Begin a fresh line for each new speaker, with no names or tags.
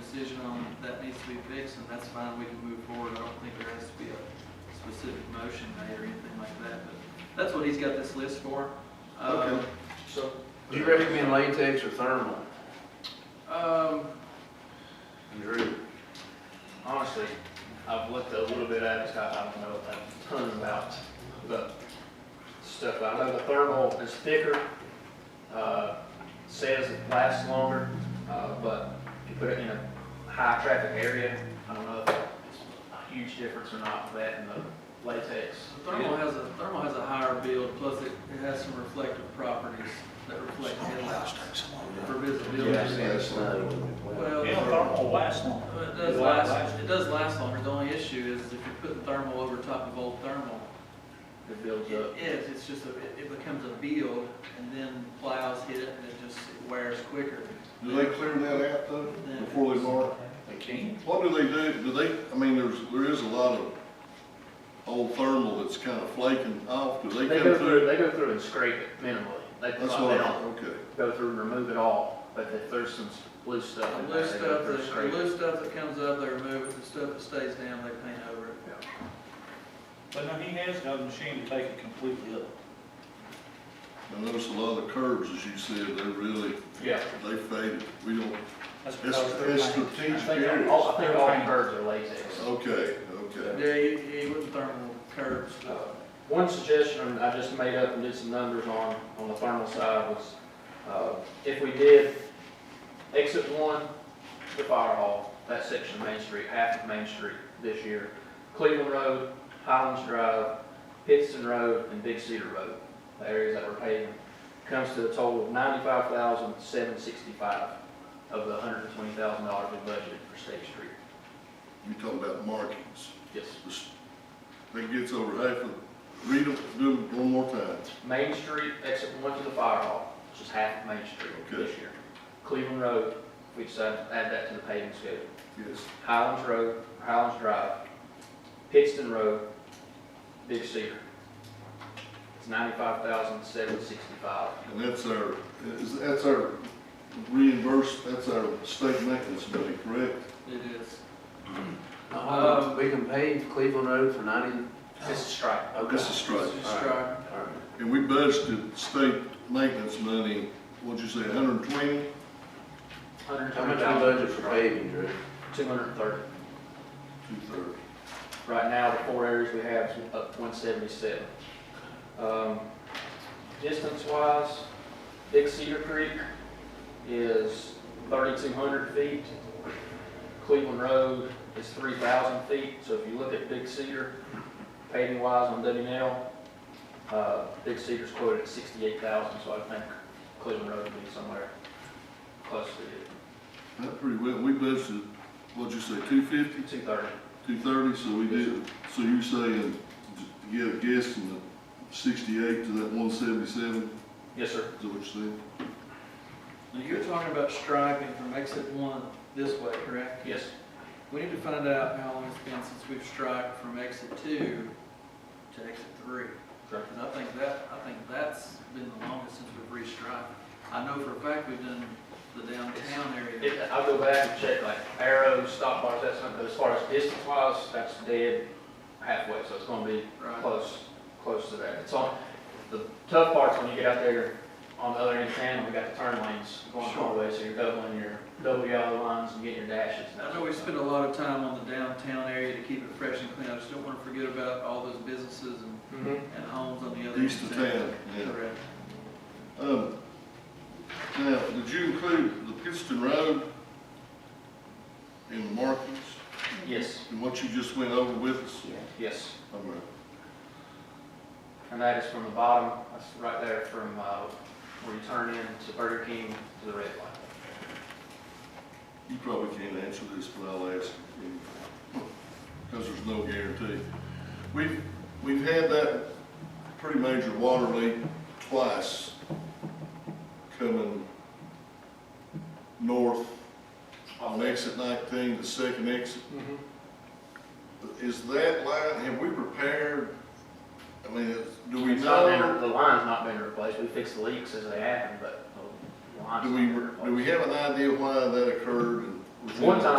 decision on that needs to be fixed, and that's fine, we can move forward. I don't think there has to be a specific motion made or anything like that, but that's what he's got this list for. Um,
Okay. So.
Do you recommend latex or thermal,
Um,
Drew?
Honestly, I've looked a little bit at it, I I don't know a ton about the stuff. I know the thermal is thicker, uh, says it lasts longer, uh, but if you put it in a high traffic area, I don't know if it's a huge difference or not, that and the latex.
so thermal has a, thermal has a higher build, plus it, it has some reflective properties that reflect headlights for visibility. Well,
Yeah, thermal last longer.
Well, It does last, it does last longer, the only issue is if you're putting thermal over top of old thermal,
It builds up.
it is, it's just, a it it becomes a build, and then plows hit it, and it just it wears quicker.
Do they clear that out though, before they mark?
They can.
What do they do, do they, I mean, there's, there is a lot of old thermal that's kind of flaking off, do
They
they
go
come
through,
through?
they go through and scrape it minimally. They, they
That's what, I-
don't
okay,
go through and remove it all, but if there's some loose stuff.
The
in there,
loose
they
stuff,
go through and
that-
scrape it.
the loose stuff that comes up, they remove it, the stuff that stays down, they paint over it.
But no, he has got a machine to take it completely up.
I noticed a lot of the curves, as you said, they're really,
Yeah.
they faded, we don't,
That's
it's,
because they're
it's
painted.
I
strategic
think
areas.
all, I think all birds are latex.
Okay, okay.
Yeah, you, you wouldn't thermal curves,
Uh,
but
One suggestion I just made up and did some numbers on, on the thermal side was, uh, if we did exit one, the fire hall, that section of Main Street, half of Main Street this year, Cleveland Road, Highlands Drive, Pittston Road, and Big Cedar Road, the areas that we're paving, comes to a total of ninety-five thousand, seven sixty-five of the hundred and twenty thousand dollars we budgeted for State Street.
You talking about markings,
Yes.
This- that gets over half of, read them, do them one more time.
Main Street, exit one to the fire hall, which is half of Main Street this year. Cleveland Road, we decided to add that to the paving schedule.
Yes,
Highlands Road, Highlands Drive, Pittston Road, Big Cedar. It's ninety-five thousand, seven sixty-five.
and that's our, is- that's our reimbursed, that's our state maintenance money, correct?
it is.
Uh, we can pave Cleveland Road for ninety,
This is strike.
That's a strike.
It's just striped.
all right.
And we budgeted state maintenance money, what'd you say, hundred and twenty?
How much we budget for paving, Drew?
Two hundred and thirty.
Two-thirds.
Right now, the four areas we have is up one seventy-seven. Um, distance-wise, Big Cedar Creek is thirty-two hundred feet. Cleveland Road is three thousand feet, so if you look at Big Cedar, paving-wise on W and L, uh, Big Cedar's quoted at sixty-eight thousand, so I think Cleveland Road would be somewhere close to
That pretty well, we budgeted, what'd you say, two fifty,
two thirty.
two thirty, so we did, so you're saying, yeah, guessing the sixty-eight to that one seventy-seven,
Yes, sir.
is that what you said?
Now, you're talking about striping from exit one this way, correct?
Yes.
We need to find out how long it's been since we've striped from exit two to exit three.
Sure.
Because I think that, I think that's been the longest since we've restriped. I know for a fact we've done the downtown area.
It- I'll go back and check like arrows, stop bars, that's not, but as far as distance wise, that's dead halfway, so it's gonna be
Right,
close, close to that. It's on, the tough part's when you get out there on the other end of town, we got the turn lanes going
Sure.
all the way, so you're doubling your, double yellow lines and getting your dashes. and
I
that
know we
sort
spent
of
a lot of time on the downtown area to keep it fresh and clean. I just don't want to forget about all those businesses and,
stuff. Mhm.
and homes on the other.
East of town, yeah.
Correct.
Um, now, did you include the Pittston Road in the markings,
Yes,
and what you just went over with us?
yes.
All right.
And that is from the bottom, that's right there from, uh, where you turn in to Burger King to the red light.
You probably can't answer this, but I'll ask because there's no guarantee. We've, we've had that pretty major water leak twice coming north on exit nineteen, the second exit. Is that line, have we repaired? I mean, is- do we
It's not been,
know?
the line's not been replaced, we fixed the leaks as they happened, but the line's
Do we,
not been
do we
replaced.
have an idea why that occurred? and was it-
One time